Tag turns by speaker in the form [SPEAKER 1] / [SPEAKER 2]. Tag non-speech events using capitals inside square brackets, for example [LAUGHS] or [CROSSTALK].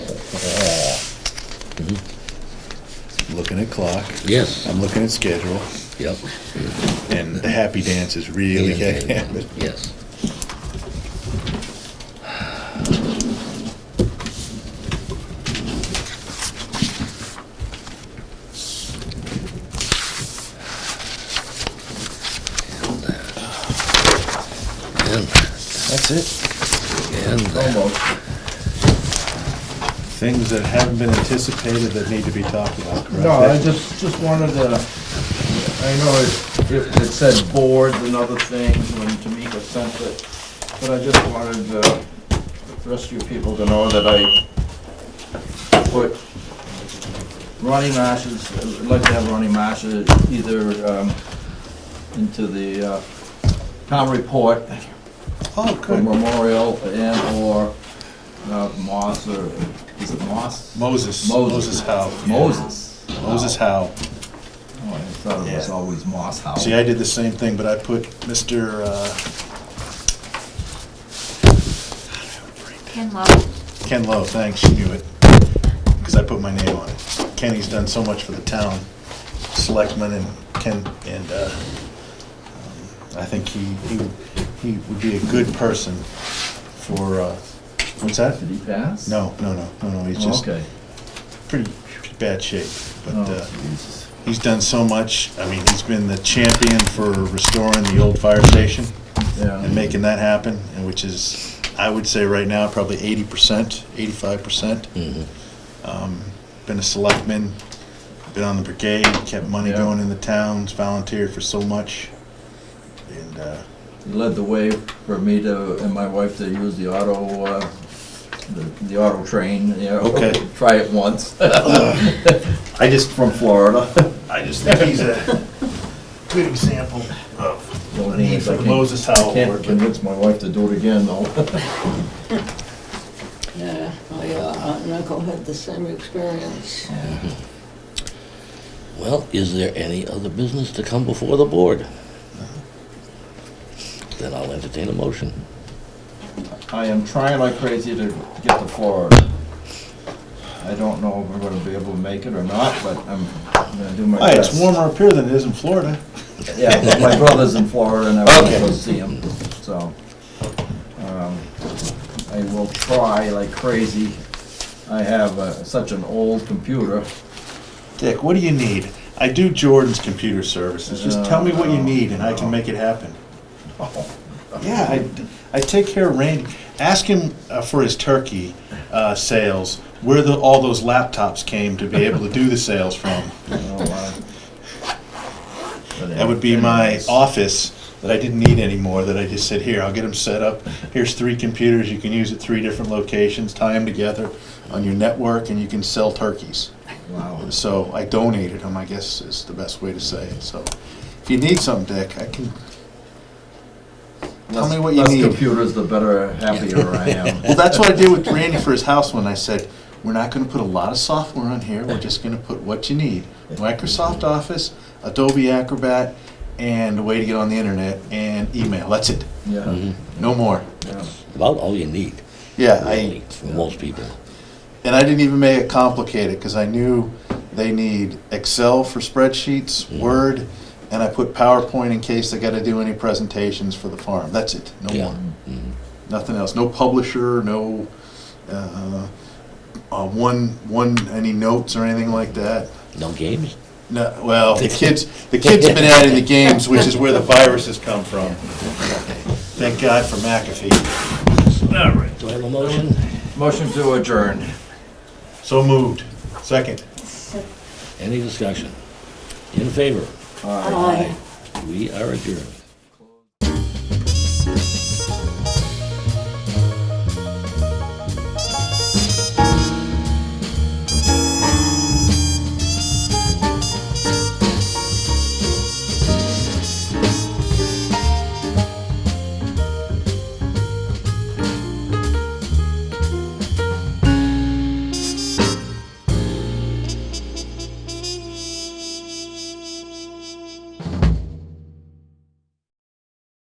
[SPEAKER 1] Looking at clock,
[SPEAKER 2] Yes,
[SPEAKER 1] I'm looking at schedule,
[SPEAKER 2] yep.
[SPEAKER 1] and the happy dance is really
[SPEAKER 2] Yeah,
[SPEAKER 1] gonna happen.
[SPEAKER 2] Yes. And that,
[SPEAKER 1] That's it.
[SPEAKER 2] and that, and that.
[SPEAKER 1] Almost. Things that haven't been anticipated that need to be talked about, correct?
[SPEAKER 3] No, I just, just wanted to, I know it, it it said boards and other things when Tamika sent it, but I just wanted uh, the rest of you people to know that I put Ronnie Marsh's, I'd like to have Ronnie Marsh either um, into the uh, town report
[SPEAKER 1] Oh,
[SPEAKER 3] for
[SPEAKER 1] good.
[SPEAKER 3] Memorial and/or Moss or, is it Moss?
[SPEAKER 1] Moses,
[SPEAKER 3] Moses.
[SPEAKER 1] Moses Howe. yeah.
[SPEAKER 3] Moses.
[SPEAKER 1] Moses Howe.
[SPEAKER 3] Oh, I thought it was
[SPEAKER 1] Yeah.
[SPEAKER 3] always Moss House.
[SPEAKER 1] See, I did the same thing, but I put Mr., uh,
[SPEAKER 4] Ken Love.
[SPEAKER 1] Ken Lowe, thanks, you knew it, because I put my name on it. Kenny's done so much for the town, selectmen and Ken, and uh, um, I think he, he he would be a good person for, uh, what's that?
[SPEAKER 3] Did he pass?
[SPEAKER 1] No, no, no, no, no, he's
[SPEAKER 3] Oh,
[SPEAKER 1] just
[SPEAKER 3] Okay.
[SPEAKER 1] pretty bad shape, but
[SPEAKER 3] Oh,
[SPEAKER 1] uh,
[SPEAKER 3] Jesus.
[SPEAKER 1] he's done so much. I mean, he's been the champion for restoring the old fire station and
[SPEAKER 3] Yeah,
[SPEAKER 1] making that happen, and which is, I would say right now, probably eighty percent, eighty-five percent.
[SPEAKER 3] Mm-hmm.
[SPEAKER 2] Mhm.
[SPEAKER 1] Been a selectman, been on the brigade, kept money
[SPEAKER 3] Yeah.
[SPEAKER 1] going in the towns, volunteered for so much. And, uh,
[SPEAKER 3] he led the way for me to, and my wife to use the auto, uh, the- the auto train, you know,
[SPEAKER 1] Okay.
[SPEAKER 3] [LAUGHS] try it [LAUGHS] once
[SPEAKER 1] I just,
[SPEAKER 3] from Florida.
[SPEAKER 1] I just think he's a good example of
[SPEAKER 3] The
[SPEAKER 1] the
[SPEAKER 3] only thing
[SPEAKER 1] need
[SPEAKER 3] is [LAUGHS] I
[SPEAKER 1] for
[SPEAKER 3] can't-
[SPEAKER 1] Moses Howell.
[SPEAKER 3] Can't
[SPEAKER 1] work.
[SPEAKER 3] convince my wife to do it again, though.
[SPEAKER 5] Yeah, my uh, aunt and uncle had the same experience.
[SPEAKER 2] Well, is there any other business to come before the board? Then I'll entertain a motion.
[SPEAKER 3] [LAUGHS] I am trying like crazy to get to Florida. I don't know if I'm gonna be able to make it or not, but I'm gonna do my
[SPEAKER 1] Hi,
[SPEAKER 3] best.
[SPEAKER 1] Oh, it's warmer up here than it is in Florida.
[SPEAKER 3] Yeah,
[SPEAKER 1] [LAUGHS]
[SPEAKER 3] but my brother's in Florida and I want to go
[SPEAKER 1] Okay.
[SPEAKER 3] see him, so. um, I will try like crazy. I have uh, such an old computer.
[SPEAKER 1] Dick, what do you need? I do Jordan's computer services. Just tell me what you need and I can make it happen. Yeah, I, I take care of Randy. Ask him uh, for his turkey uh, sales, where the, all those laptops came to be able to do the sales from.
[SPEAKER 3] That
[SPEAKER 1] That would be my office that I didn't need anymore, that I just said, here, I'll get them set up. Here's three computers you can use at three different locations, tie them together on your network and you can sell turkeys.
[SPEAKER 3] Wow,
[SPEAKER 1] So I donated them, I guess is the best way to say it. So if you need something, Dick, I can. Tell me what you
[SPEAKER 3] less
[SPEAKER 1] need.
[SPEAKER 3] computers, the better, happier I
[SPEAKER 1] Well, [LAUGHS]
[SPEAKER 3] am.
[SPEAKER 1] that's what I did with Randy for his house when I said, we're not gonna put a lot of software on here, we're just gonna put what you need. Microsoft Office, Adobe Acrobat, and a way to get on the internet, and email, that's it,
[SPEAKER 3] Yeah,
[SPEAKER 1] no more.
[SPEAKER 3] yeah.
[SPEAKER 2] About all you need,
[SPEAKER 1] Yeah, I,
[SPEAKER 2] really, for most people.
[SPEAKER 1] and I didn't even make it complicated, because I knew they need Excel for spreadsheets, Word, and I put PowerPoint in case they gotta do any presentations for the farm, that's it, no
[SPEAKER 2] Yeah. Mm-hmm.
[SPEAKER 1] more. nothing else. No publisher, no uh, uh, one one any notes or anything like that.
[SPEAKER 2] No games?
[SPEAKER 1] No, well, the kids the kids have been adding the games, which is where the viruses come from. Thank God for McAfee.
[SPEAKER 2] Do I have a motion?
[SPEAKER 3] Motion to adjourn.
[SPEAKER 1] So moved. Second.
[SPEAKER 2] Any discussion? In favor?
[SPEAKER 5] Aye.
[SPEAKER 2] We are adjourned.